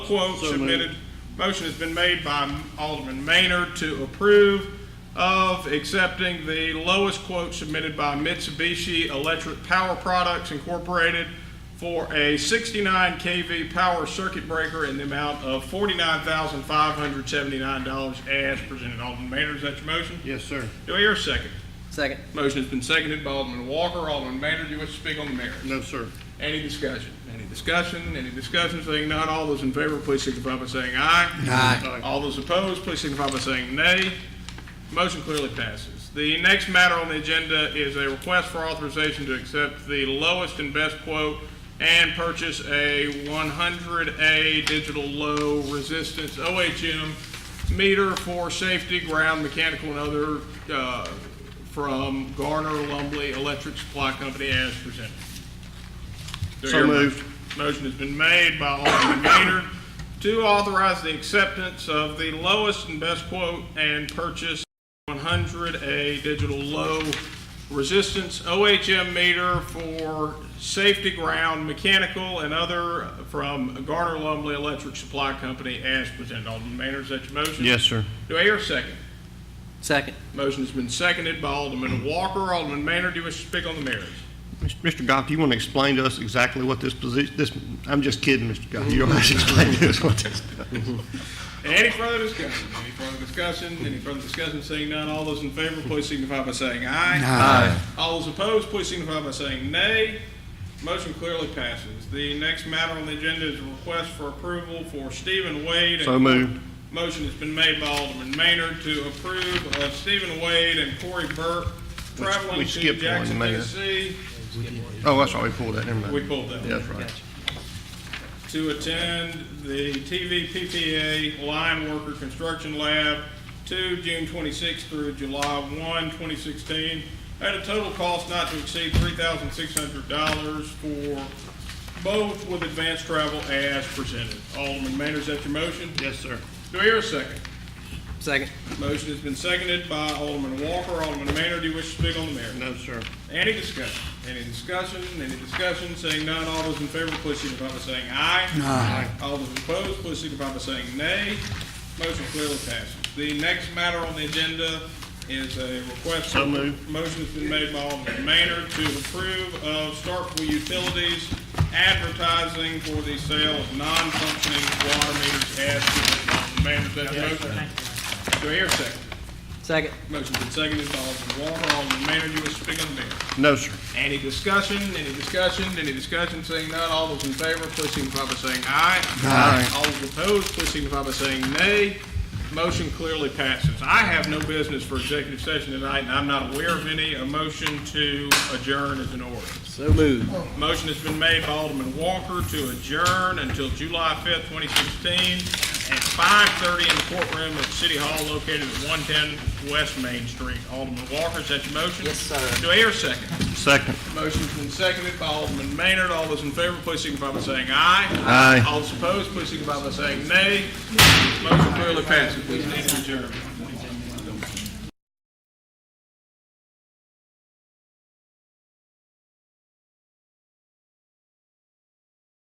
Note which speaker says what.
Speaker 1: quote
Speaker 2: So moved.
Speaker 1: submitted. Motion has been made by Alderman Maynard to approve of accepting the lowest quote submitted by Mitsubishi Electric Power Products Incorporated for a 69 kV power circuit breaker in the amount of $49,579 as presented. Alderman Maynard, is that your motion?
Speaker 2: Yes, sir.
Speaker 1: Do I hear a second?
Speaker 3: Second.
Speaker 1: Motion has been seconded by Alderman Walker. Alderman Maynard, do you wish to speak on the matter?
Speaker 2: No, sir.
Speaker 1: Any discussion? Any discussion? Any discussion? Saying none, all those in favor, please signify by saying aye.
Speaker 2: Aye.
Speaker 1: All those opposed, please signify by saying nay. Motion clearly passes. The next matter on the agenda is a request for authorization to accept the lowest and best quote and purchase a 100A digital low resistance OHM meter for safety, ground, mechanical, and other uh, from Garner Lumley Electric Supply Company as presented. Do I
Speaker 2: So
Speaker 1: hear a mo-
Speaker 2: moved.
Speaker 1: Motion has been made by Alderman Gainer to authorize the acceptance of the lowest and best quote and purchase 100A digital low resistance OHM meter for safety ground, mechanical, and other from Garner Lumley Electric Supply Company as presented. Alderman Maynard, is that your motion?
Speaker 2: Yes, sir.
Speaker 1: Do I hear a second?
Speaker 3: Second.
Speaker 1: Motion has been seconded by Alderman Walker. Alderman Maynard, do you wish to speak on the merits?
Speaker 2: Mr. Goff, you want to explain to us exactly what this position, this, I'm just kidding, Mr. Goff. You don't have to explain to us what this.
Speaker 1: Any further discussion? Any further discussion? Any further discussion? Seeing none, all those in favor, please signify by saying aye. Aye. All those opposed, please signify by saying nay. Motion clearly passes. The next matter on the agenda is a request for approval for Stephen Wade. and-
Speaker 2: So moved.
Speaker 1: Motion has been made by Alderman Maynard to approve of Stephen Wade and Corey Burke traveling
Speaker 2: we
Speaker 1: to
Speaker 2: skipped one,
Speaker 1: Jackson,
Speaker 2: Mayor.
Speaker 1: Tennessee.
Speaker 2: Oh, that's right, we pulled that, never mind.
Speaker 1: We pulled that.
Speaker 2: Yeah, That's right.
Speaker 1: to attend the TVPPA Line Worker Construction Lab 2, June 26 through July 1, 2016, at a total cost not to exceed $3,600 for both with advanced travel as presented. Alderman Maynard, is that your motion?
Speaker 2: Yes, sir.
Speaker 1: Do I hear a second?
Speaker 3: Second.
Speaker 1: Motion has been seconded by Alderman Walker. Alderman Maynard, do you wish to speak on the matter?
Speaker 2: No, sir.
Speaker 1: Any discussion? Any discussion? Any discussion? Saying none, all those in favor, please signify by saying aye. Aye. All those opposed, please signify by saying nay. Motion clearly passes. The next matter on the agenda is a request.
Speaker 2: So moved.
Speaker 1: Motion's been made by Alderman Maynard to approve of Starkville Utilities advertising for the sale of non-functioning water meters as presented. Alderman Maynard, is that your motion? Do I hear a second?
Speaker 3: Second.
Speaker 1: Motion's been seconded by Alderman Walker. Alderman Maynard, you wish to speak on the matter?
Speaker 2: No, sir.
Speaker 1: Any discussion, any discussion, any discussion, seeing none, all those in favor, please signify by saying aye.
Speaker 2: Aye.
Speaker 1: All those opposed, please signify by saying nay. Motion clearly passes. I have no business for executive session tonight, and I'm not aware of any. A motion to adjourn is in order.
Speaker 3: So moved.
Speaker 1: Motion has been made by Alderman Walker to adjourn until July fifth, twenty sixteen, at five thirty in the courtroom at City Hall located at one ten West Main Street. Alderman Walker, is that your motion?
Speaker 3: Yes, sir.
Speaker 1: Do I hear a second?
Speaker 2: Second.
Speaker 1: Motion's been seconded by Alderman Maynard. All those in favor, please signify by saying aye.
Speaker 2: Aye.
Speaker 1: All those opposed, please signify by saying nay. Motion clearly passes. We stand adjourned.